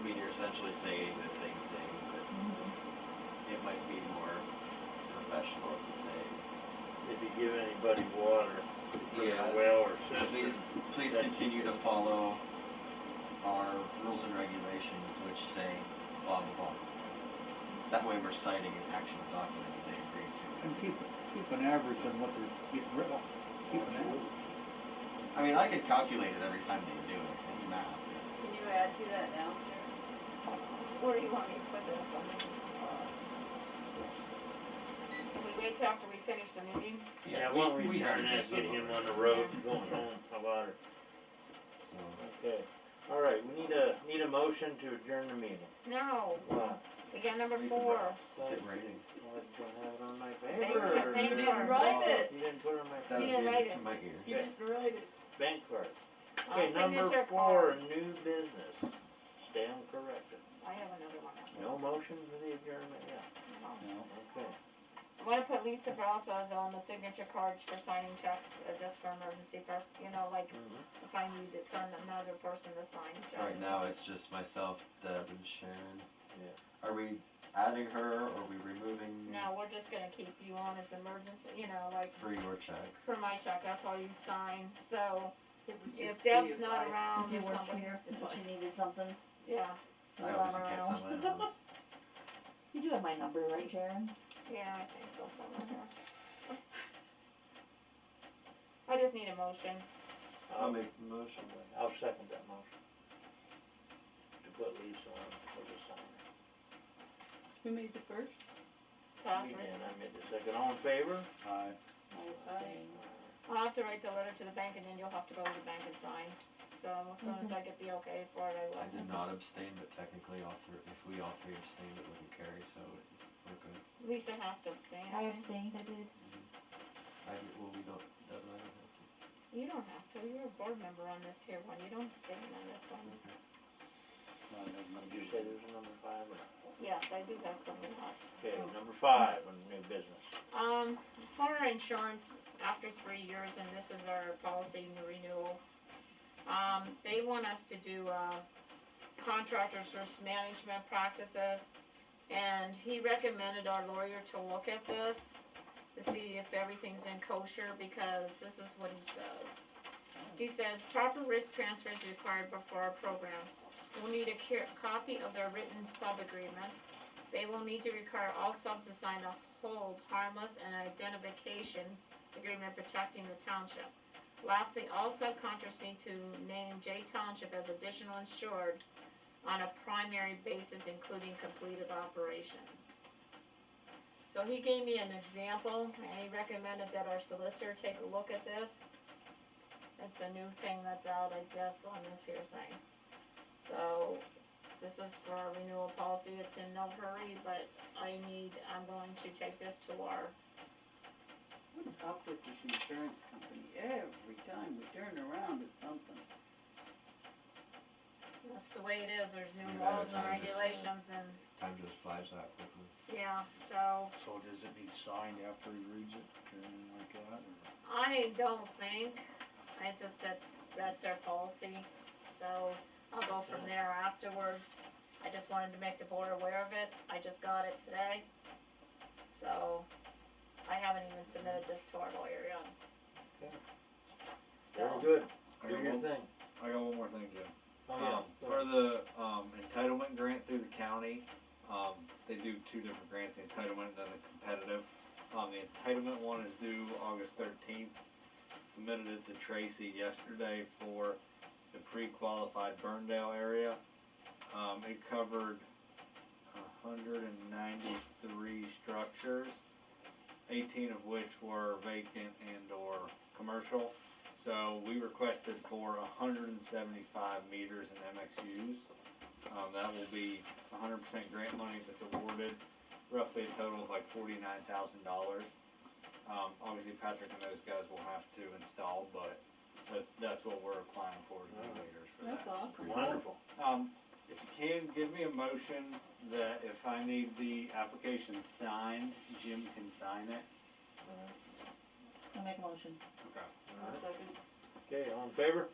essentially saying the same thing, but it might be more professional to say, If you give anybody water from Yeah. a well or please, cistern, please That- continue to follow our rules and regulations which say blah, blah, blah. That way we're citing an actual document that they agreed to. And keep, keep an average on what they're getting rid of. Keep an average. I mean, I could calculate it every time they do it, it's math. but- Can you add to that now? Where do you want me to put this? I mean, Can we wait till after we finish the meeting? yeah, why don't we have turn that, addressed get him already, on the road, going home, a lot of, so. okay. All right, we need a, need a motion to adjourn the meeting. No, Wow. we got number Reason four. Sit rating. Well, I don't have it on my Bank card, paper. Oh, bank You card. didn't write it. You didn't put it on my That was You didn't write music it. to my ear. You didn't write it. bank card. Uh, Okay, number signature four, card. new business. Stand corrected. I have another one. after No this. motion for the adjournment yet. No. No. Okay. I wanna put Lisa Brazos on the signature cards for signing checks, uh, just for emergency, per you know, like, if I need to send another person to sign checks. Right now, it's just myself, Deb, and Sharon. Yeah. Are we adding her, or are we removing No, we're just gonna keep you on as emergency, you know, like, for your check? for my check, that's all you sign, so It would if just be Deb's if not I- around You or weren't somebody, here, if she needed something. yeah, I obviously can't sign my own. You do have my number, right, Sharon? yeah, I think so, somewhere here. I just need a motion. I'll make the motion. I'll second that motion. To put Lisa on for the sign. Who made the first? Catherine. And I made the second, all in favor? Aye. I'll have to write the letter to the bank and then you'll have to go to the bank and sign. So as soon as I get the okay for it, I I will. did not abstain, but technically, all three, if we all three abstain, it wouldn't carry, so we're good. Lisa has to abstain, I I think. abstained, I did. I, well, we don't, Deb and I don't have to. You don't have to, you're a board member on this here one, you don't abstain on this one. I have no Did you say there's a number five or? Yes, I do have something else. Okay, number five on new business. Um, for our insurance, after three years, and this is our policy new renewal, um, they want us to do, uh, contractors' risk management practices. And he recommended our lawyer to look at this, to see if everything's in kosher, because this is what he says. He says proper risk transfer is required before our program. We'll need a ca- copy of their written sub-agreement. They will need to require all subs to sign a hold harmless and identification agreement protecting the township. Lastly, all subcontractors need to name J Township as additional insured on a primary basis, including completed operation. So he gave me an example, and he recommended that our solicitor take a look at this. It's a new thing that's out, I guess, on this here thing. So, this is for our renewal policy, it's in no hurry, but I need, I'm going to take this to our, What's up with this insurance company? Every time we turn around, it's something. that's the way it is, there's You new gotta laws and sign this. regulations and, Time just flies that quickly. yeah, so, So does it need signed after he reads it or anything like that? or- I don't think, I just, that's, that's our policy, so I'll go from there afterwards. I just wanted to make the board aware of it, I just got it today, so I haven't even submitted this to our lawyer yet. Okay. So. Very good, I do got your one, thing. I got one more thing, Jim. Oh, yeah. Um, for the, um, entitlement grant through the county, um, they do two different grants, the entitlement and then the competitive. Um, the entitlement one is due August thirteenth. Submitted it to Tracy yesterday for the pre-qualified Burndale area. Um, it covered hundred and ninety-three structures, eighteen of which were vacant and or commercial. So we requested for hundred and seventy-five meters in MXUs. Um, that will be hundred percent grant money that's awarded, roughly a total of like forty-nine thousand dollars. Um, obviously Patrick and those guys will have to install, but that, that's what we're applying for, is the meters for That's that. awesome. Wonderful. Um, if you can, give me a motion that if I need the application signed, Jim can sign it. I make a motion. Okay. Second. Okay, all in favor?